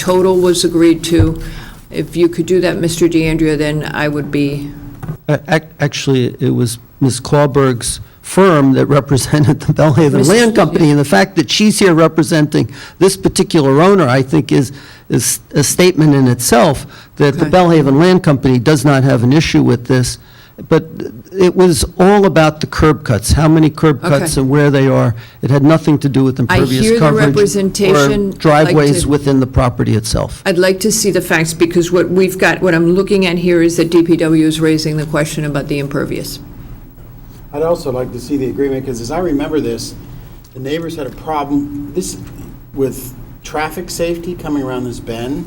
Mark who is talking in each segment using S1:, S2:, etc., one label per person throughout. S1: total was agreed to. If you could do that, Mr. DeAndrea, then I would be,
S2: A- ac- Actually, it was Ms. Clawberg's firm that represented the Bellhaven
S1: Mrs.
S2: Land Company, and the fact that she's here representing this particular owner, I think, is, is a statement in itself that the
S1: Okay.
S2: Bellhaven Land Company does not have an issue with this, but it was all about the curb cuts, how many curb cuts
S1: Okay.
S2: and where they are. It had nothing to do with
S1: hear
S2: impervious
S1: the
S2: coverage
S1: representation,
S2: or
S1: I'd like
S2: driveways
S1: to-
S2: within the property itself.
S1: I'd like to see the facts, because what we've got, what I'm looking at here is that DPW is raising the question about the impervious.
S3: I'd also like to see the agreement, because as I remember this, the neighbors had a problem, this, with traffic safety coming around this bend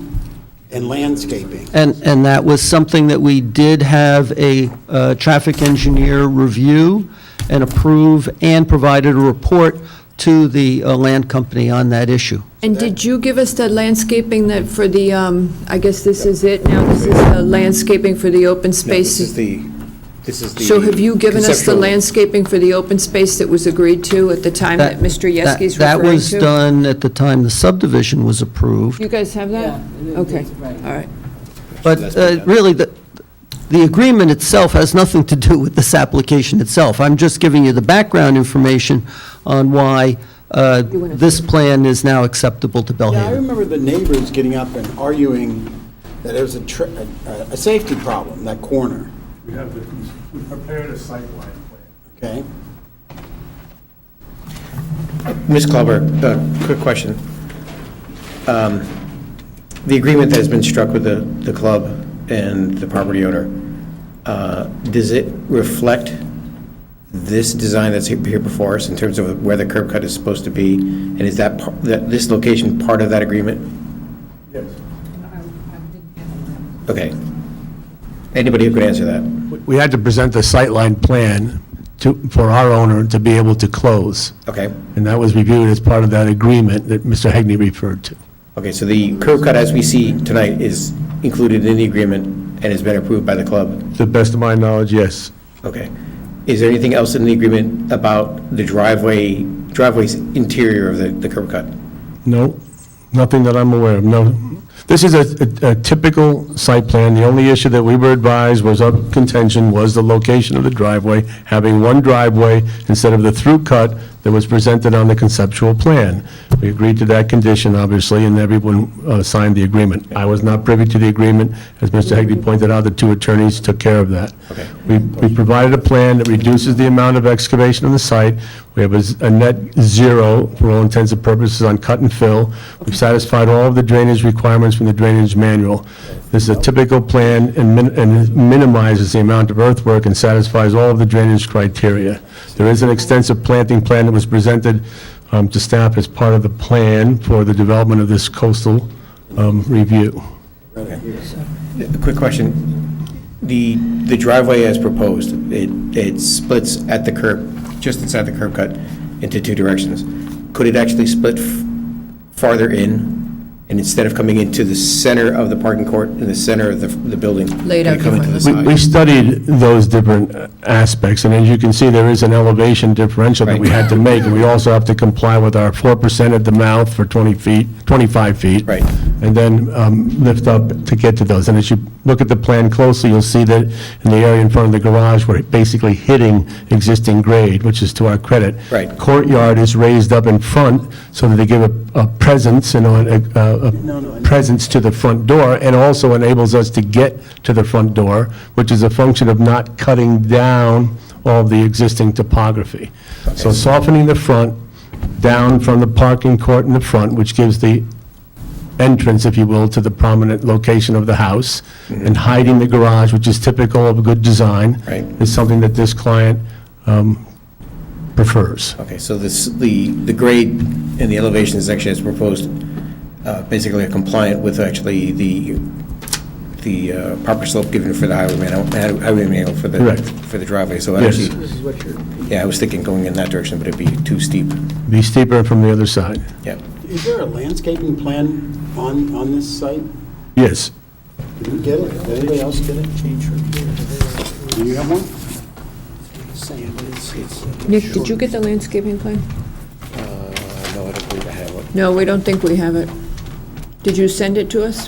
S3: and landscaping.
S2: And, and that was something that we did have a uh, traffic engineer review and approve, and provided a report to the uh, land company on that issue.
S1: And did you give us the landscaping that for the, um, I guess this is it now, this is the landscaping for the open
S4: No, this
S1: space?
S4: is the, this is the.
S1: So have you given us the
S4: conceptual-
S1: landscaping for the open space that was agreed to at the time that Mr.
S2: That-
S1: Yeski's
S2: That
S1: referring
S2: was
S1: to?
S2: done at the time the subdivision was approved,
S1: You guys have that?
S5: Yeah, it-
S1: Okay,
S5: it's
S1: all
S5: right.
S1: right.
S2: but
S4: That's been
S2: uh,
S4: done.
S2: really, the, the agreement itself has nothing to do with this application itself. I'm just giving you the background information on why uh,
S1: You wanna-
S2: this plan is now acceptable to Bellhaven.
S3: Yeah, I remember the neighbors getting up and arguing that it was a, tra- a, a safety problem, that corner,
S6: We have the, we prepared a sightline plan.
S3: okay?
S4: Ms. Clawberg, uh, quick question. Um, The agreement that has been struck with the, the club and the property owner, uh, does it reflect this design that's here before us in terms of where the curb cut is supposed to be? And is that, par- that, this location part of that agreement?
S6: Yes.
S4: Okay. Anybody who could answer that?
S7: We had to present the sightline plan to, for our owner to be able to close.
S4: Okay.
S7: And that was reviewed as part of that agreement that Mr. Hegney referred to.
S4: Okay, so the curb cut as we see tonight is included in the agreement and has been approved by the club?
S7: To the best of my knowledge, yes.
S4: Okay. Is there anything else in the agreement about the driveway, driveway's interior of the, the curb cut?
S7: No, nothing that I'm aware of, no. This is a- a a typical site plan. The only issue that we were advised was of contention was the location of the driveway, having one driveway instead of the through cut that was presented on the conceptual plan. We agreed to that condition, obviously, and everyone uh, signed the agreement. I was not privy to the agreement. As Mr. Hegley pointed out, the two attorneys took care of that.
S4: Okay.
S7: We we provided a plan that reduces the amount of excavation on the site. We have a z- a net zero, for all intents and purposes, on cut and fill. We've satisfied all of the drainage requirements from the drainage manual. This is a typical plan and min- and minimizes the amount of earthwork and satisfies all of the drainage criteria. There is an extensive planting plan that was presented um, to staff as part of the plan for the development of this coastal um, review.
S4: A quick question. The, the driveway as proposed, it, it splits at the curb, just inside the curb cut, into two directions. Could it actually split f- farther in, and instead of coming into the center of the parking court, in the center of the, the building?
S1: Laid out
S4: could it come into the
S7: We-
S4: side?
S7: We studied those different uh, aspects, and as you can see, there is an elevation differential that we had to make, and we also have to comply with our 4% at the mouth for 20 feet, 25 feet.
S4: Right.
S7: And then um, lift up to get to those. And as you look at the plan closely, you'll see that in the area in front of the garage, we're basically hitting existing grade, which is to our credit.
S4: Right.
S7: Courtyard is raised up in front so that they give a a presence and a- a a presence to the front door, and also enables us to get to the front door, which is a function of not cutting down all the existing topography. So softening the front, down from the parking court in the front, which gives the entrance, if you will, to the prominent location of the house, and hiding the garage, which is typical of a good design.
S4: Right.
S7: Is something that this client um, prefers.
S4: Okay, so this, the, the grade and the elevation section as proposed, uh, basically are compliant with actually the, the uh, proper slope given for the highway manual, highway manual for the,
S7: Correct.
S4: for the driveway, so
S7: Yes.
S4: actually. Yeah, I was thinking going in that direction, but it'd be too steep,
S7: Be steeper from the other side.
S4: yeah.
S3: Is there a landscaping plan on, on this site?
S7: Yes.
S3: Did you get it? Did anybody else get it? Change Do you have one?
S1: Nick, did you get the landscaping plan?
S4: No, I don't believe I have one.
S1: No, we don't think we have it. Did you send it to us?